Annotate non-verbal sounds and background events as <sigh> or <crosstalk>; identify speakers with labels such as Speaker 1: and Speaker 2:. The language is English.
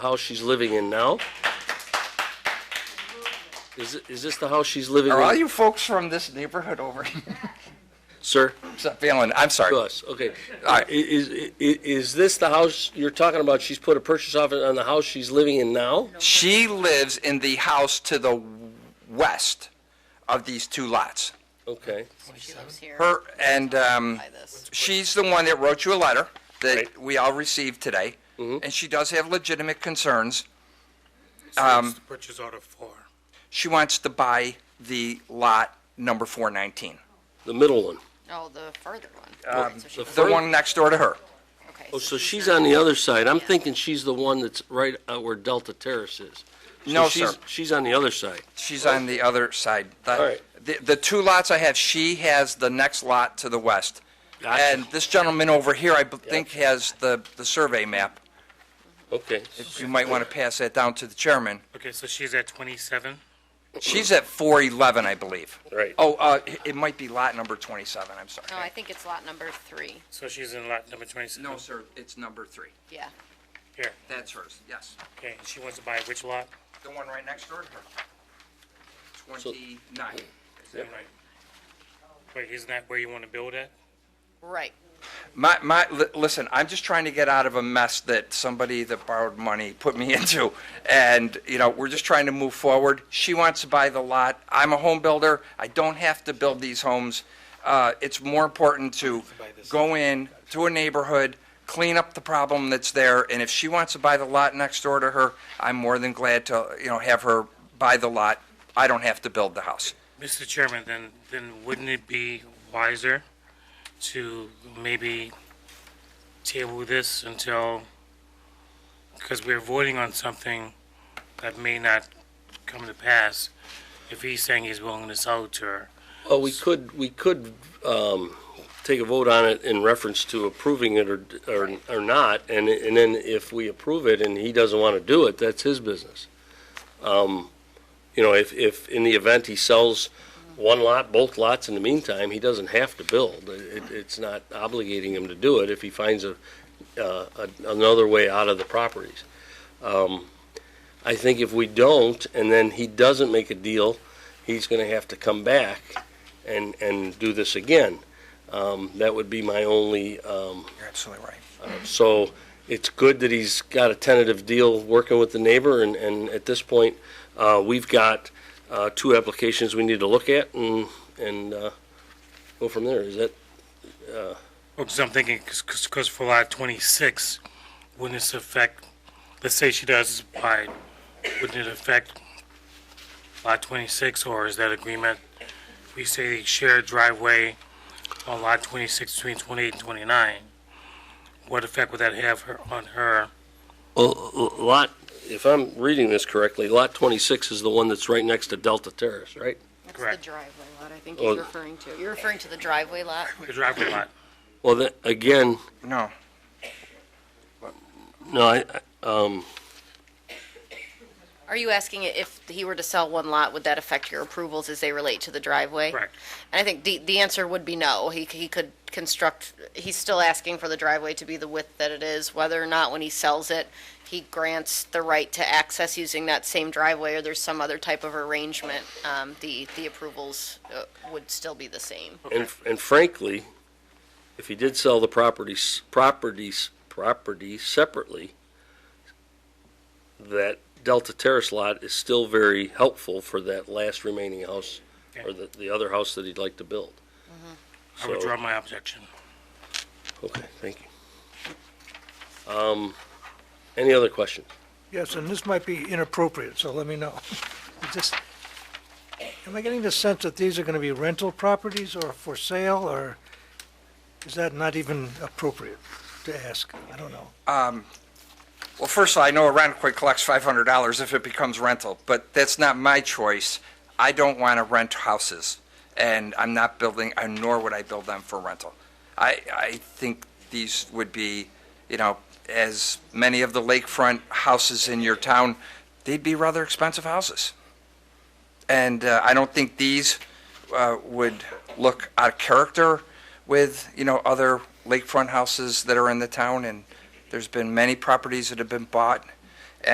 Speaker 1: house she's living in now? Is, it- is this the house she's living
Speaker 2: Are all
Speaker 1: in?
Speaker 2: you folks from this neighborhood over here? <laughs>
Speaker 1: Sir,
Speaker 2: Except Phelan, I'm
Speaker 1: to
Speaker 2: sorry.
Speaker 1: us, okay. I- Is, i- i- is this the house you're talking about, she's put a purchase offer on the house she's living in now?
Speaker 2: She lives in the house to the west of these two lots.
Speaker 1: Okay,
Speaker 3: She lives here
Speaker 2: Her, and, um,
Speaker 3: by this.
Speaker 2: she's the one that wrote you a letter that
Speaker 1: Right. Mm-hmm.
Speaker 2: we all received today. And she does have legitimate concerns.
Speaker 4: Since the purchase order for,
Speaker 2: She wants to buy the lot number 419,
Speaker 1: the middle one.
Speaker 3: Oh, the further one. Right, so she
Speaker 1: Um, the
Speaker 3: lives-
Speaker 2: the one next door to her.
Speaker 3: okay,
Speaker 1: Oh, so she's
Speaker 3: not-
Speaker 1: on the other side, I'm thinking she's the one that's right out where Delta Terrace is. So
Speaker 2: No,
Speaker 1: she's-
Speaker 2: sir.
Speaker 1: She's on the other side.
Speaker 2: She's on the other side. The-
Speaker 1: All right.
Speaker 2: The, the two lots I have, she has the next lot to the west.
Speaker 1: Gotcha.
Speaker 2: And this gentleman over here, I b- think, has the, the survey map.
Speaker 1: Okay,
Speaker 2: If you might want to pass that down to the chairman.
Speaker 4: okay, so she's at 27?
Speaker 2: She's at 411, I believe.
Speaker 1: right.
Speaker 2: Oh, uh, it- it might be lot number 27, I'm sorry.
Speaker 3: No, I think it's lot number three.
Speaker 4: So she's in lot number 27?
Speaker 2: No, sir, it's number three.
Speaker 3: Yeah.
Speaker 4: Here,
Speaker 2: That's hers, yes.
Speaker 4: okay, she wants to buy which lot?
Speaker 2: The one right next door to her. 29.
Speaker 4: Right. Wait, isn't that where you want to build at?
Speaker 3: Right.
Speaker 2: My, my, li- listen, I'm just trying to get out of a mess that somebody that borrowed money put me <laughs> into. And, you know, we're just trying to move forward. She wants to buy the lot. I'm a home builder. I don't have to build these homes. Uh, it's more important to go in to a neighborhood, clean up the problem that's there. And if she wants to buy the lot next door to her, I'm more than glad to, you know, have her buy the lot. I don't have to build the house.
Speaker 4: Mr. Chairman, then, then wouldn't it be wiser to maybe table this until, because we're voting on something that may not come to pass, if he's saying he's willing to sell it to her?
Speaker 1: Well, we could, we could um, take a vote on it in reference to approving it or, or or not, and, and then if we approve it and he doesn't want to do it, that's his business. Um, You know, if, if, in the event he sells one lot, both lots in the meantime, he doesn't have to build. It, it's not obligating him to do it if he finds a, uh, a- another way out of the properties. Um, I think if we don't, and then he doesn't make a deal, he's going to have to come back and, and do this again. Um, that would be my only, um,
Speaker 2: You're absolutely right.
Speaker 1: so it's good that he's got a tentative deal working with the neighbor, and, and at this point, uh, we've got, uh, two applications we need to look at and, and, uh, go from there. Is that,
Speaker 4: Well, 'cause I'm thinking, because for lot 26, wouldn't this affect, let's say she does buy, wouldn't it affect lot 26, or is that agreement, we say shared driveway on lot 26 between 28 and 29? What effect would that have her, on her?
Speaker 1: well, lot, if I'm reading this correctly, lot twenty-six is the one that's right next to Delta Terrace, right?
Speaker 3: That's the
Speaker 4: Correct.
Speaker 3: driveway lot I think
Speaker 1: Oh.
Speaker 3: you're referring to. You're referring to the driveway lot?
Speaker 4: The driveway lot?
Speaker 1: Well, that, again,
Speaker 2: No.
Speaker 1: no, I, I- um,
Speaker 3: Are you asking if he were to sell one lot, would that affect your approvals as they relate to the driveway?
Speaker 4: Correct.
Speaker 3: And I think the, the answer would be no. He, c- he could construct, he's still asking for the driveway to be the width that it is, whether or not when he sells it, he grants the right to access using that same driveway or there's some other type of arrangement, um, the, the approvals uh, would still be the same.
Speaker 1: And, and frankly, if he did sell the properties, properties, property separately, that Delta Terrace lot is still very helpful for that last remaining house, or the, the other house that he'd like to build.
Speaker 4: I would
Speaker 1: So-
Speaker 4: draw my objection.
Speaker 1: Okay, thank you. Um, any other questions?
Speaker 5: Yes, and this might be inappropriate, so let me know. <laughs> It Just, am I getting the sense that these are going to be rental properties or for sale, or is that not even appropriate to ask? I don't know.
Speaker 2: Well, first of all, I know a Rentquit collects $500 if it becomes rental, but that's not my choice. I don't want to rent houses, and I'm not building, and nor would I build them for rental. I, I think these would be, you know, as many of the lakefront houses in your town, they'd be rather expensive houses. And uh, I don't think these uh, would look out of character with, you know, other lakefront houses that are in the town, and there's been many properties that have been bought